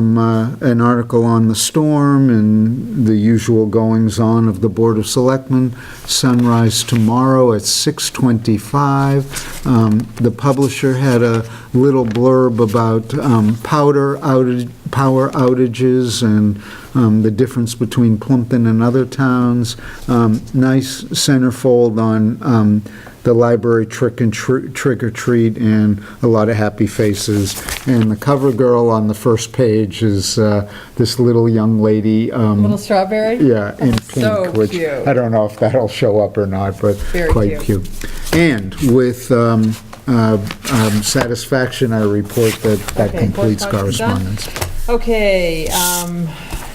um, uh, an article on the storm and the usual goings-on of the Board of Selectmen. Sunrise tomorrow at 6:25. Um, The publisher had a little blurb about um, powder outage, power outages and um, the difference between Plumpton and other towns. Um, Nice centerfold on um, the library trick and tr- trick or treat and a lot of happy faces. And the cover girl on the first page is uh, this little young lady. um, Little strawberry? Yeah, in So pink, which cute. I don't know if that'll show up or not, but Very quite cute. And with um, uh, um, satisfaction, I report that that Okay, completes correspondence correspondence. Okay, um,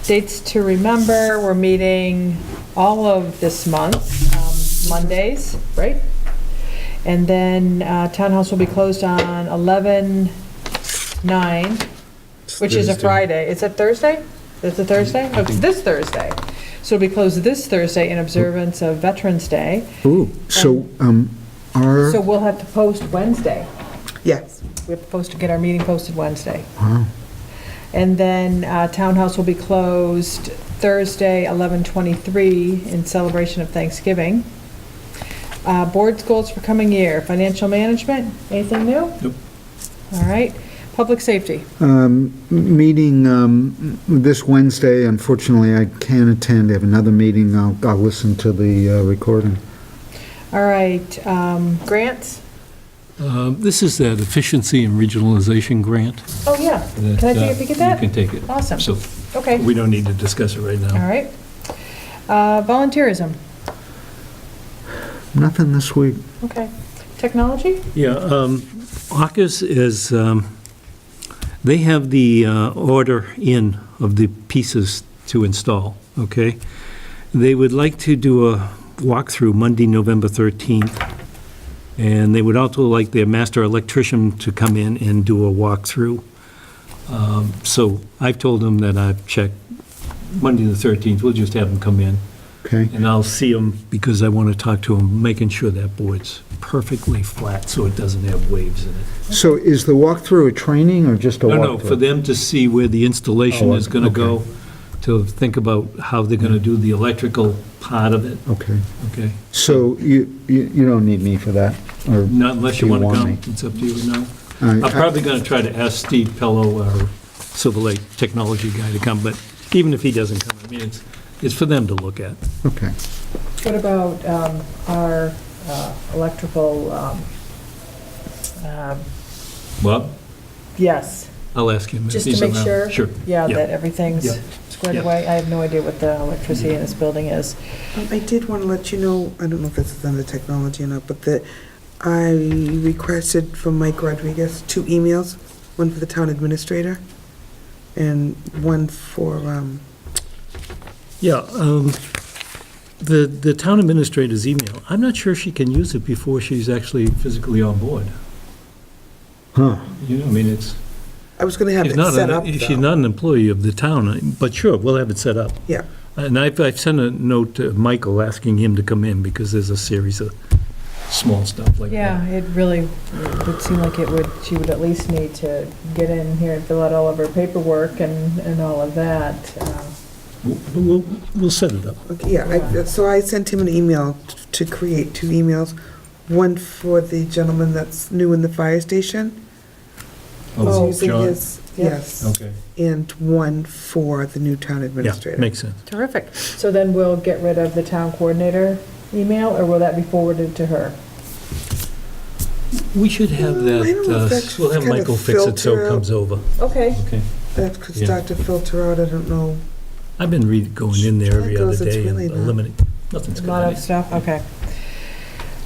dates to remember, we're meeting all of this month, um, Mondays, right? And then uh, Townhouse will be closed on 11/9, which is a Friday. Is it Thursday? Is it Thursday? Oh, It's this Thursday. So it'll be closed this Thursday in observance of Veterans Day. Ooh, so um, our, So we'll have to post Wednesday. Yes. We have to post, to get our meeting posted Wednesday. And then uh, Townhouse will be closed Thursday, 11:23, in celebration of Thanksgiving. Uh, Board's goals for coming year, financial management, anything new? Nope. All right, public safety. um, meeting um, this Wednesday, unfortunately, I can't attend, I have another meeting, I'll I'll listen to the uh, recording. All right, um, grants? Um, This is that efficiency and regionalization grant. Oh, yeah. that, Can I uh, take a peek at that? You can take it. Awesome. So Okay, we don't need to discuss it right all now. right. Uh, Volunteerism, Nothing this week. okay. Technology? Yeah, um, AUKUS is, um, they have the uh, order in of the pieces to install, okay? They would like to do a walkthrough Monday, November 13th, and they would also like their master electrician to come in and do a walkthrough. Um, So I've told them that I've checked Monday, the 13th, we'll just have them come in. Okay, And I'll see him because I want to talk to him, making sure that board's perfectly flat so it doesn't have waves in it. so is the walkthrough a training or just a No, walkthrough? no, for them to see where the installation Oh, is going to okay. go, to think about how they're going to do the electrical part of it, Okay, okay? so you, you you don't need me for that, or? Not unless Do you you want to want come, me? it's up to you now. I- I'm probably going to try to ask Steve Pello, our Silver Lake technology guy, to come, but even if he doesn't come, I mean, it's, it's for them to look at. Okay. What about um, our uh, electrical, um, um, Well, yes, I'll ask him. if Just to he's make around. sure? Sure. yeah, Yeah. that everything's Yeah. squared Yeah. away? I have no idea what the electricity in this building is. Um, I did want to let you know, I don't know if this is under technology or not, but that I requested from Mike Rodriguez two emails, one for the town administrator and one for, um, Yeah, um, the, the town administrator's email, I'm not sure she can use it before she's actually physically on board. Huh. You know, I mean, it's, I was going to have she's it not, set up an- she's though. not an employee of the town, I- but sure, we'll have it set up. Yeah. And I've, I've sent a note to Michael asking him to come in because there's a series of small stuff like that. Yeah, it really would seem like it would, she would at least need to get in here and fill out all of her paperwork and, and all of that. uh, We'll- We'll, we'll set it up. Okay, Yeah, I- so I sent him an email t- to create two emails, one for the gentleman that's new in the fire station. who's Oh, using John. his- Yeah. Oh. Yes, Okay. and one for the new town Yeah, administrator. makes sense. Terrific. So then we'll get rid of the town coordinator email, or will that be forwarded to her? We should have Mm, I don't that, know if uh, that's we'll have kind of Michael fix it so filter it out. comes over, Okay. okay? That could Yeah. start to filter out, I don't know. I've been re, going in there every That other goes, it's day and really not- eliminate, nothing's A good. lot on of it. stuff, okay.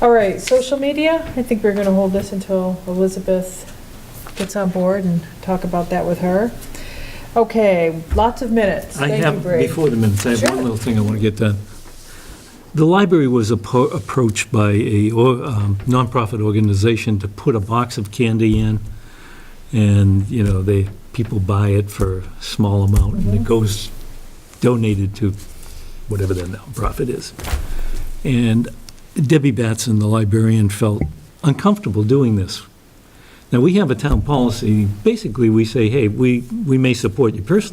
All right, social media, I think we're gonna hold this until Elizabeth gets on board and talk about that with her. Okay, lots of minutes. I Thank you, have, Bree. before the minutes, I have Sure. one little thing I want to get done. The library was appro- approached by a or- um, nonprofit organization to put a box of candy in, and, you know, they, people buy it for a small amount, and it Mhm. goes donated to whatever the nonprofit is. And Debbie Batson, the librarian, felt uncomfortable doing this. Now, we have a town policy, basically, we say, hey, we, we may support you personally,